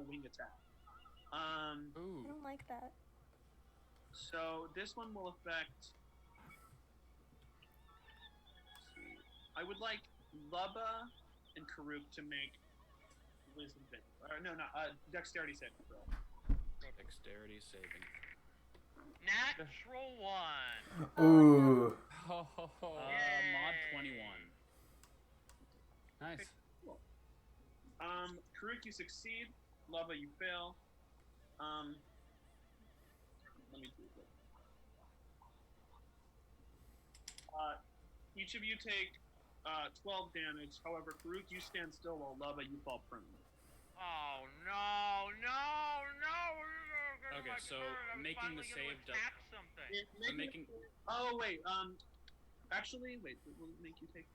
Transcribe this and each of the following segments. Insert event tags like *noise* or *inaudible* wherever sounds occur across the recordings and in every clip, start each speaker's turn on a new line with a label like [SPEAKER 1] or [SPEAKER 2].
[SPEAKER 1] wing attack. Um,
[SPEAKER 2] Ooh.
[SPEAKER 3] I
[SPEAKER 4] *laughs*
[SPEAKER 3] don't like that.
[SPEAKER 1] so this one will affect. I would like Lubba and Karuk to make wisdom save. Uh, no, not uh, dexterity saving throw.
[SPEAKER 2] Dexterity saving.
[SPEAKER 4] Natural one.
[SPEAKER 5] Ooh.
[SPEAKER 2] Oh,
[SPEAKER 4] Oh.
[SPEAKER 1] Uh,
[SPEAKER 2] mod 21. Nice.
[SPEAKER 1] Um, Karuk, you succeed. Lubba, you fail. Um, let me do it. Uh, each of you take uh, 12 damage. However, Karuk, you stand still while Lubba, you fall prone.
[SPEAKER 4] Oh no, no, no! You're gonna
[SPEAKER 2] Okay,
[SPEAKER 4] like
[SPEAKER 2] so
[SPEAKER 4] hurt. I'm
[SPEAKER 2] making the
[SPEAKER 4] finally
[SPEAKER 2] save
[SPEAKER 4] gonna
[SPEAKER 2] does-
[SPEAKER 4] attack something.
[SPEAKER 1] It- make
[SPEAKER 2] I'm
[SPEAKER 1] me-
[SPEAKER 2] making.
[SPEAKER 1] Oh, wait. Um, actually, wait. It will make you take.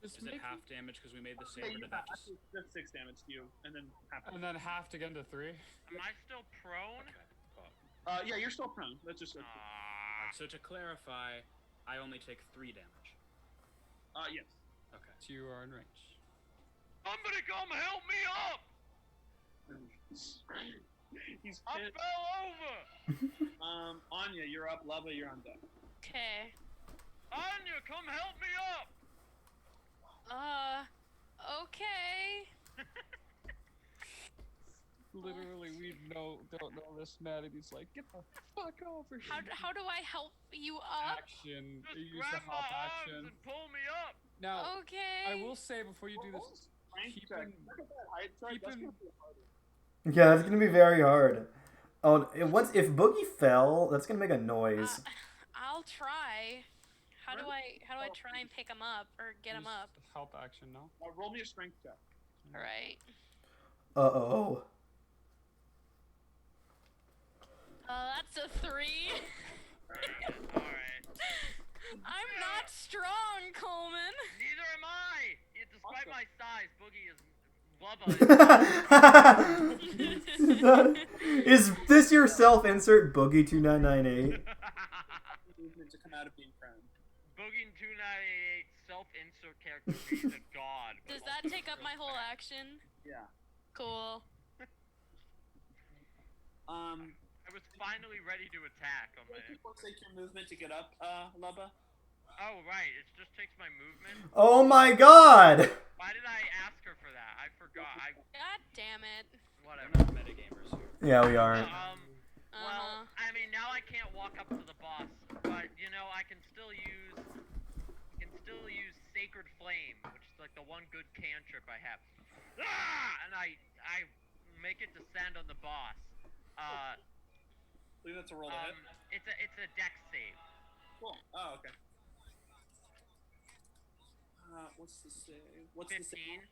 [SPEAKER 2] Is it half damage because we made the
[SPEAKER 1] Yeah,
[SPEAKER 2] save? Or
[SPEAKER 1] you
[SPEAKER 2] did
[SPEAKER 1] have,
[SPEAKER 2] that just...
[SPEAKER 1] that's six damage to you, and then half.
[SPEAKER 6] And then half to get into three.
[SPEAKER 4] Am I still prone?
[SPEAKER 2] Okay. cool.
[SPEAKER 1] Uh, yeah, you're still prone. That's just.
[SPEAKER 4] Ah.
[SPEAKER 2] So to clarify, I only take three damage.
[SPEAKER 1] Uh, yes. *laughs*
[SPEAKER 2] Okay.
[SPEAKER 6] So you are in range.
[SPEAKER 4] Somebody come help me up!
[SPEAKER 1] He's
[SPEAKER 6] Oh.
[SPEAKER 4] I
[SPEAKER 1] pissed.
[SPEAKER 4] fell over.
[SPEAKER 1] Um, Anya, you're up. Lava, you're on deck.
[SPEAKER 7] Okay.
[SPEAKER 4] Anya, come help me up!
[SPEAKER 7] Uh, okay.
[SPEAKER 6] Literally, we know don't know this man, and he's like, "Get the fuck over here!"
[SPEAKER 7] How, d- how do I help you up?
[SPEAKER 6] action.
[SPEAKER 4] Just
[SPEAKER 6] You use the
[SPEAKER 4] grab my
[SPEAKER 6] hop
[SPEAKER 4] arms
[SPEAKER 6] action.
[SPEAKER 4] and pull me up.
[SPEAKER 6] Now,
[SPEAKER 7] Okay.
[SPEAKER 6] I will say before you do
[SPEAKER 1] What was
[SPEAKER 6] this,
[SPEAKER 1] Height
[SPEAKER 6] keep
[SPEAKER 1] check.
[SPEAKER 6] in-
[SPEAKER 1] Look at that height check.
[SPEAKER 6] keep
[SPEAKER 1] That's
[SPEAKER 6] in-
[SPEAKER 1] gonna be harder.
[SPEAKER 5] Yeah, that's gonna be very hard. Oh, and what's if Boogie fell? That's gonna make a noise.
[SPEAKER 7] Uh, *laughs* I'll try. How do I how do I
[SPEAKER 1] Oh.
[SPEAKER 7] try and pick him up or get him
[SPEAKER 6] use
[SPEAKER 7] up?
[SPEAKER 6] Help action now.
[SPEAKER 1] Uh, roll me a strength check.
[SPEAKER 7] All right.
[SPEAKER 5] Uh oh.
[SPEAKER 7] Uh, that's a three. *laughs*
[SPEAKER 4] Alright.
[SPEAKER 7] I'm not strong, Coleman.
[SPEAKER 4] Neither am I. Yeah, despite my size, Boogie is Bubba.
[SPEAKER 5] *laughs* *laughs*
[SPEAKER 4] *laughs*
[SPEAKER 5] Is this your self insert Boogie two nine nine eight?
[SPEAKER 4] Boogie
[SPEAKER 1] Movement to come out of being prone.
[SPEAKER 4] in 298 self-insert character. He's a god.
[SPEAKER 7] Does that take up my whole action?
[SPEAKER 1] Yeah.
[SPEAKER 7] Cool.
[SPEAKER 1] Um,
[SPEAKER 4] I was finally ready to attack on my.
[SPEAKER 1] what people take your movement to get up, uh, Lubba?
[SPEAKER 4] Oh right, it just takes my movement.
[SPEAKER 5] Oh my god!
[SPEAKER 4] Why did I ask her for that? I forgot. I
[SPEAKER 7] God damn it.
[SPEAKER 2] I'm
[SPEAKER 4] whatever.
[SPEAKER 2] not metagamers here.
[SPEAKER 5] Yeah, we are.
[SPEAKER 4] Um.
[SPEAKER 7] Uh-huh.
[SPEAKER 4] Well, I mean, now I can't walk up to the boss, but you know, I can still use, I can still use Sacred Flame, which is like the one good cantrip I have. Ah! And I, I make it descend on the boss.
[SPEAKER 1] I
[SPEAKER 4] Uh,
[SPEAKER 1] believe that's a roll to
[SPEAKER 4] um,
[SPEAKER 1] hit.
[SPEAKER 4] it's a, it's a deck save.
[SPEAKER 1] Cool. Oh, okay. Uh, what's the save? What's the save?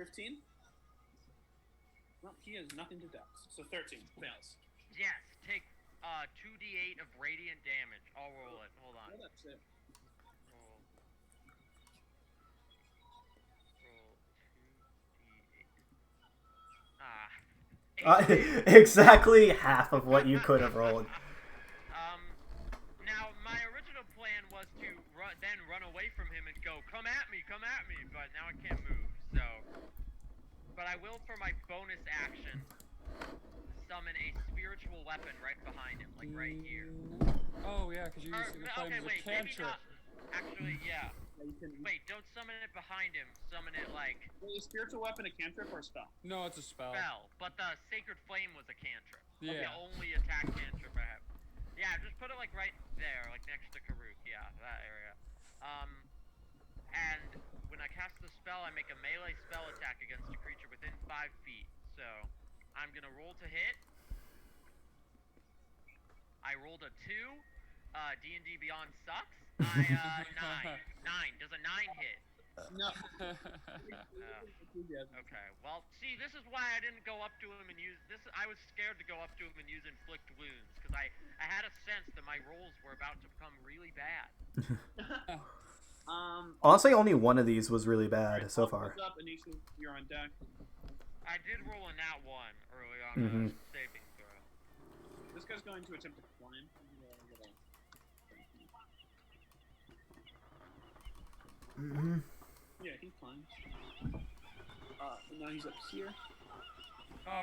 [SPEAKER 4] Fifteen.
[SPEAKER 1] 15? Well, he has nothing to dex, so 13 fails.
[SPEAKER 4] Yes. Take uh 2d8 of radiant damage. I'll roll it. Hold on.
[SPEAKER 1] Well, that's it.
[SPEAKER 4] Roll. Roll 2d8. Ah.
[SPEAKER 5] Uh,
[SPEAKER 4] Eight.
[SPEAKER 5] *laughs* exactly half of what you could have rolled.
[SPEAKER 4] Um, now my original plan was to ru- then run away from him and go, "Come at me, come at me!" But now I can't move, so. But I will, for my bonus action, summon a spiritual weapon right behind him, like right here.
[SPEAKER 6] Oh yeah, because you
[SPEAKER 4] Or,
[SPEAKER 6] using the
[SPEAKER 4] no,
[SPEAKER 6] flame
[SPEAKER 4] okay,
[SPEAKER 6] as a
[SPEAKER 4] wait, maybe
[SPEAKER 6] cantrip.
[SPEAKER 4] not. Actually, yeah.
[SPEAKER 1] Yeah, you can
[SPEAKER 4] Wait, don't summon it behind him. Summon it like
[SPEAKER 1] Is a spiritual weapon a cantrip or a spell?
[SPEAKER 6] No, it's a spell.
[SPEAKER 4] spell. But the sacred flame was a cantrip. That's
[SPEAKER 6] Yeah.
[SPEAKER 4] The only attack cantrip I have. Yeah, just put it like right there, like next to Karuk. Yeah, that area. Um, and when I cast the spell, I make a melee spell attack against a creature within five feet. So I'm gonna roll to hit. I rolled a two. Uh, D and D Beyond sucks. I uh, nine. Nine. Does a nine hit?
[SPEAKER 6] *laughs*
[SPEAKER 4] Uh,
[SPEAKER 1] No.
[SPEAKER 4] Okay. Well, see, this is why I didn't go up to him and use this. I was scared to go up to him and use inflict wounds because I I had a sense that my rolls were about to become really bad.
[SPEAKER 1] um,
[SPEAKER 5] Honestly, only one of these was really bad
[SPEAKER 1] alright,
[SPEAKER 5] so
[SPEAKER 1] Lubba
[SPEAKER 5] far.
[SPEAKER 1] goes Up, Anisha, you're on deck.
[SPEAKER 4] I did roll on that one early on
[SPEAKER 5] Mhm.
[SPEAKER 4] the saving throw.
[SPEAKER 1] This guy's going to attempt to climb.
[SPEAKER 5] hmm
[SPEAKER 1] Yeah, he climbs. Uh, and now he's up here.
[SPEAKER 4] Oh,